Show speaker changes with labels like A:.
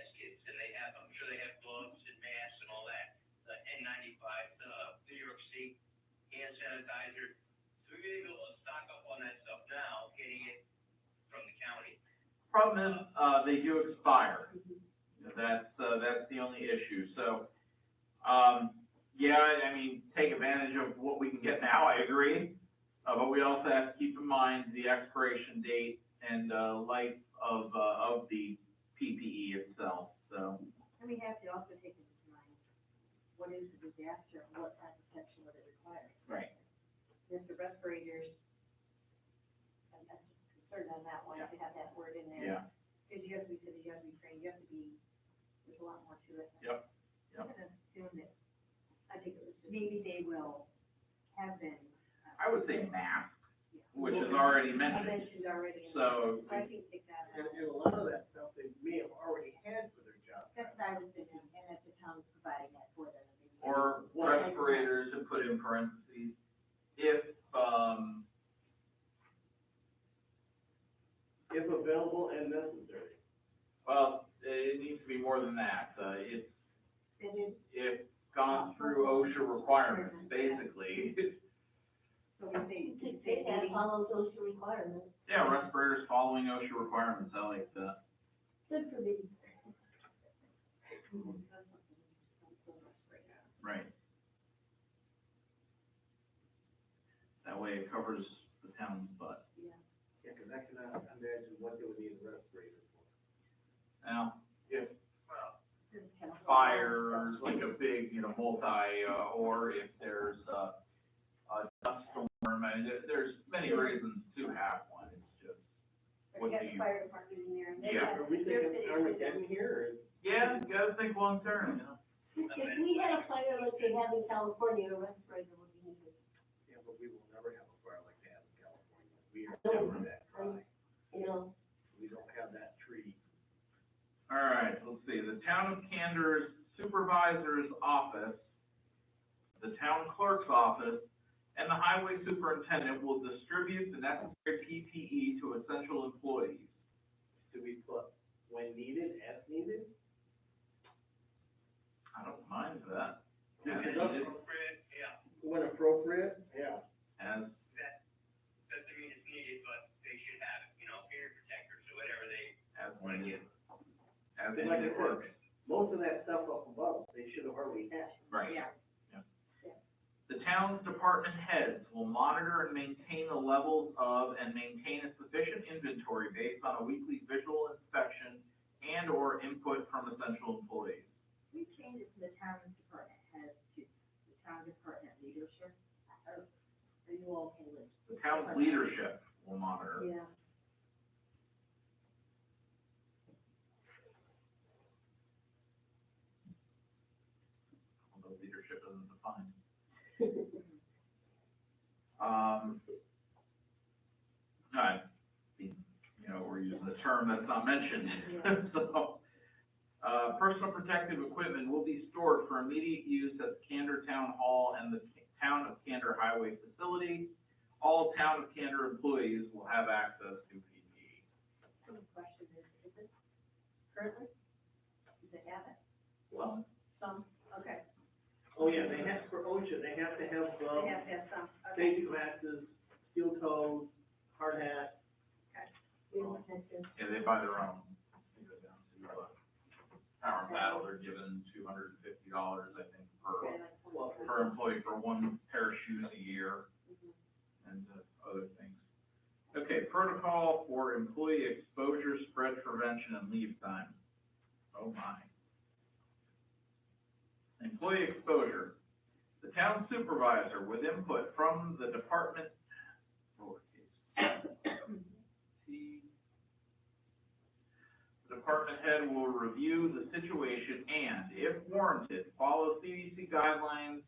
A: uh, sanitizer. So we're gonna be able to stock up on that stuff now, getting it from the county.
B: Problem is, uh, they do expire. That's, uh, that's the only issue, so, um, yeah, I- I mean, take advantage of what we can get now, I agree. Uh, but we also have to keep in mind the expiration date and, uh, life of, uh, of the PPE itself, so.
C: And we have to also take into mind, what is a disaster, and what type of protection would it require?
B: Right.
C: Mr. Respirators, I'm I'm just concerned on that one, if you have that word in there.
B: Yeah,
C: Because you have to be, because you have to be trained, you have to be, there's a lot more to it.
B: Yep, yep.
C: I'm gonna assume that, I think it was, maybe they will have been. uh,
B: I would say mask,
C: yeah.
B: which is already
C: I
B: mentioned,
C: mentioned already. in there.
B: so,
C: So I can take that
D: And,
C: out.
D: and a lot of that stuff they may have already had for their job.
C: That's what I was thinking, and that the town's providing that for them.
B: or respirators to put in parentheses, if, um,
D: If available and necessary.
B: Well, it needs to be more than that. Uh, it's,
C: It is,
B: it's gone through OSHA requirements, basically.
C: so we say, we say.
E: They have follow those requirements.
B: Yeah, respirators following OSHA requirements, I like that.
E: Good for me.
B: Right. That way it covers the town's butt.
D: Yeah, because I cannot imagine what they would need a respirator for.
B: Now, if
C: Respirators.
B: fire or like a big, you know, multi, uh, or if there's, uh, a dust storm, and there- there's many reasons to have one. It's just,
C: We
B: what do
C: got the
B: you?
C: fire department in there. and they
B: Yeah.
C: have-
D: Are we
C: they're
D: thinking
C: fitting with-
D: Armageddon here,
B: Yeah, you gotta think long term, you know?
E: If we had a fire like they have in California, a respirator would be needed.
D: or- yeah, but we will never have a fire like that in California. We are never that dry.
E: You know,
D: We don't have that tree.
B: All right, let's see, the town of Candor's supervisor's office, the town clerk's office, and the highway superintendent will distribute the necessary PPE to essential employees.
D: Do we put when needed, as needed?
B: I don't mind that.
D: Yeah,
B: As
D: it
A: That's
B: needed,
D: does.
A: appropriate, yeah,
D: When appropriate? Yeah.
B: as,
A: doesn't mean it's needed, but they should have, you know, ear protectors or whatever they,
B: as needed. As
D: Like
B: needed
D: it
B: works,
D: Most of that stuff up above, they should have already had.
B: right.
C: Yeah.
B: The town's department heads will monitor and maintain the levels of and maintain a sufficient inventory based on a weekly visual inspection and/or input from essential employees.
C: We changed it to the town department head to the town department leadership. Are are you all okay with?
B: The town's leadership will monitor.
C: Yeah.
B: although leadership isn't defined. Um, I, mean, you know, we're using a term that's not mentioned, so. Uh, personal protective equipment will be stored for immediate use at the Candor Town Hall and the Town of Candor Highway Facility. All Town of Candor employees will have access to E. PPE.
C: So the question is, is it currently? Does it have it?
B: Well.
C: Some, okay.
D: Oh, yeah, they have, for OSHA, they have to have,
C: They
D: um,
C: have to have some, okay.
D: safety glasses, steel toes, hard hat,
E: we don't have to.
B: Yeah, they buy their own. They go down to, uh, Power and Paddle, they're given two hundred and fifty dollars, I think, per
C: Okay, like one
D: Well,
C: person.
B: per employee for one pair of shoes a year and uh, other things. Okay, protocol for employee exposure, spread prevention, and leave time. Oh my. Employee exposure. The town supervisor with input from the department, lowercase. T. The department head will review the situation and, if warranted, follow CDC guidelines